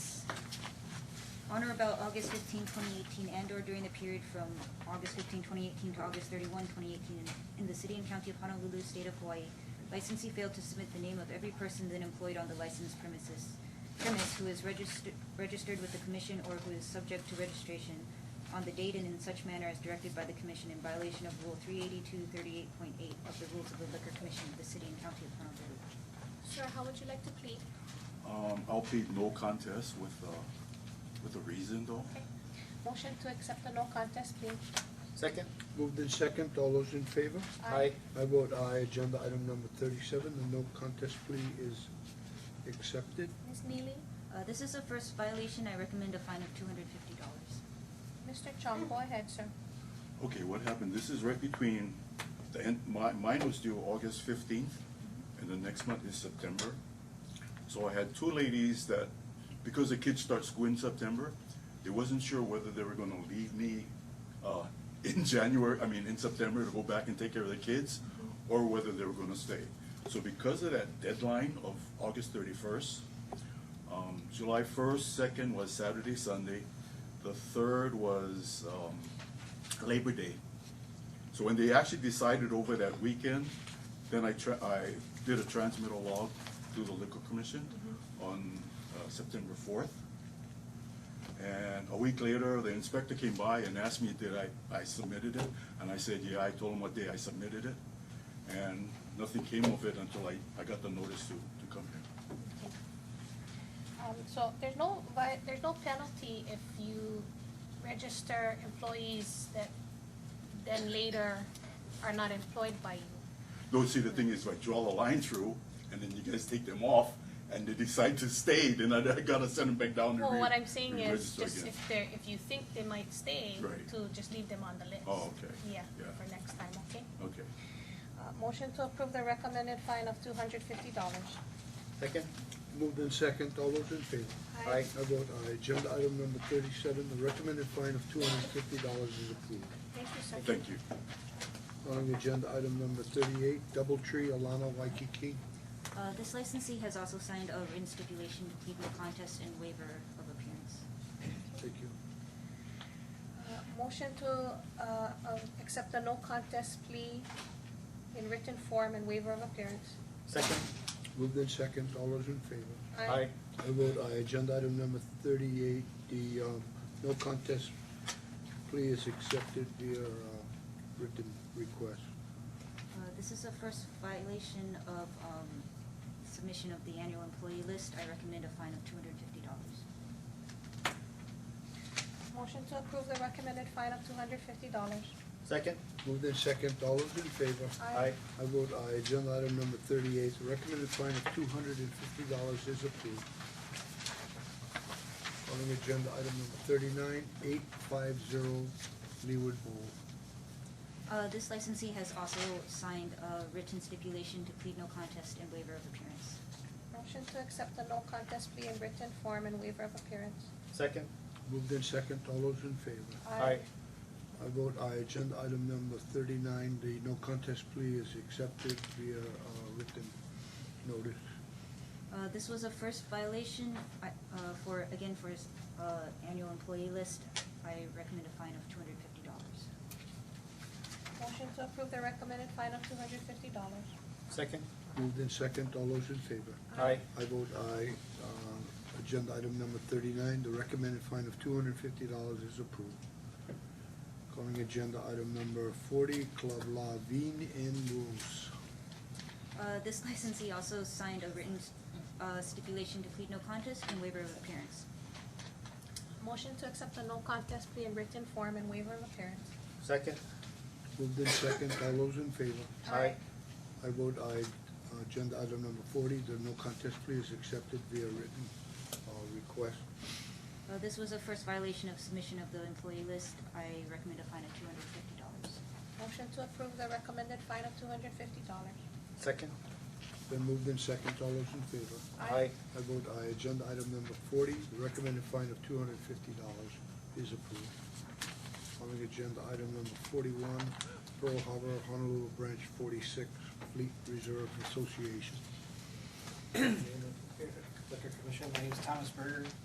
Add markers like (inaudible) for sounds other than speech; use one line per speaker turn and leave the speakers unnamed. on or about August 15, 2018, and/or during the period from August 15, 2018 to August 31, 2018, in the city and county of Honolulu, state of Hawaii, licensee failed to submit the name of every person then employed on the licensed premises, premise who is registered registered with the commission or who is subject to registration on the date and in such manner as directed by the commission in violation of Rule 38238.8 of the Rules of the Liquor Commission of the city and county of Honolulu.
Sir, how would you like to plead?
Um, I'll plead no contest with, uh, with a reason though.
Okay. Motion to accept the no contest plea.
Second?
Moved in second, all those in favor?
Aye.
I vote aye, agenda item number thirty-seven, the no contest plea is accepted.
Ms. Neely,
Uh, This is a first violation. I recommend a fine of $250.
Mr. Chong, go ahead, sir.
Okay, what happened? This is right between the end, my, mine was due August fifteenth, and the next month is September. So I had two ladies that, because the kids start school in September, they wasn't sure whether they were gonna leave me, uh, in (laughs) January, I mean, in September to go back and take care of the kids, or whether they were gonna stay. So because of that deadline of August thirty-first, um, July first, second was Saturday, Sunday. The third was, um, Labor Day. So when they actually decided over that weekend, then I tra- I did a transmittal log to the liquor commission on, uh, September fourth. And a week later, the inspector came by and asked me, did I, I submitted it? And I said, yeah, I told him what day I submitted it. And nothing came of it until I, I got the notice to, to come here.
Um, so there's no vi- there's no penalty if you register employees that then later are not employed by you.
Don't see, the thing is, I draw the line through, and then you guys take them off, and they decide to stay, then I I gotta send them back down and
Well,
re-
what I'm saying is
re-register
just
again.
if they're, if you think they might stay,
Right.
to just leave them on the list.
Oh, okay.
Yeah,
Yeah.
for next time, okay?
Okay.
Uh, motion to approve the recommended fine of two hundred fifty dollars.
Second?
Moved in second, all those in favor?
Aye. Aye.
I vote aye, agenda item number thirty-seven, the recommended fine of two hundred and fifty dollars is approved.
Thank you, sir.
Thank you.
Calling agenda item number thirty-eight, Doubletree, Alana Waikiki.
Uh, This licensee has also signed a written stipulation to plead no contest and waiver of appearance.
Thank you.
Uh, Motion to uh, uh, accept the no contest plea in written form and waiver of appearance.
Second?
Moved in second, all those in favor?
Aye.
I vote aye, agenda item number thirty-eight, the, um, no contest plea is accepted via, uh, written request.
Uh, This is a first violation of um, submission of the annual employee list. I recommend a fine of $250.
Motion to approve the recommended fine of two hundred fifty dollars.
Second?
Moved in second, all those in favor?
Aye.
I vote aye, agenda item number thirty-eight, the recommended fine of two hundred and fifty dollars is approved. Calling agenda item number thirty-nine, eight five zero Leeward Bowl.
Uh, This licensee has also signed a written stipulation to plead no contest and waiver of appearance.
Motion to accept the no contest plea in written form and waiver of appearance.
Second?
Moved in second, all those in favor? I vote aye, agenda item number thirty-nine, the no contest plea is accepted via uh, written notice.
Uh, This was a first violation I- uh, for, again, for his uh, annual employee list. I recommend a fine of $250.
Motion to approve the recommended fine of two hundred fifty dollars.
Second?
Moved in second, all those in favor?
Aye.
I vote aye, Um, agenda item number thirty-nine, the recommended fine of two hundred and fifty dollars is approved. Calling agenda item number forty, Club La Vine and Rose.
Uh, This licensee also signed a written uh, stipulation to plead no contest and waiver of appearance.
Motion to accept the no contest plea in written form and waiver of appearance.
Second?
Moved in second, all those in favor?
Aye.
I vote aye, agenda item number forty, the no contest plea is accepted via written uh, request.
Uh, This was a first violation of submission of the employee list. I recommend a fine of two hundred fifty dollars.
Motion to approve the recommended fine of two hundred fifty dollars.
Second?
Then moved in second, all those in favor?
Aye.
I vote aye, agenda item number forty, the recommended fine of two hundred and fifty dollars is approved. Calling agenda item number forty-one, Pearl Harbor Honolulu Branch forty-six Fleet Reserve Association.
Liquor Commission, my name is Thomas Berger,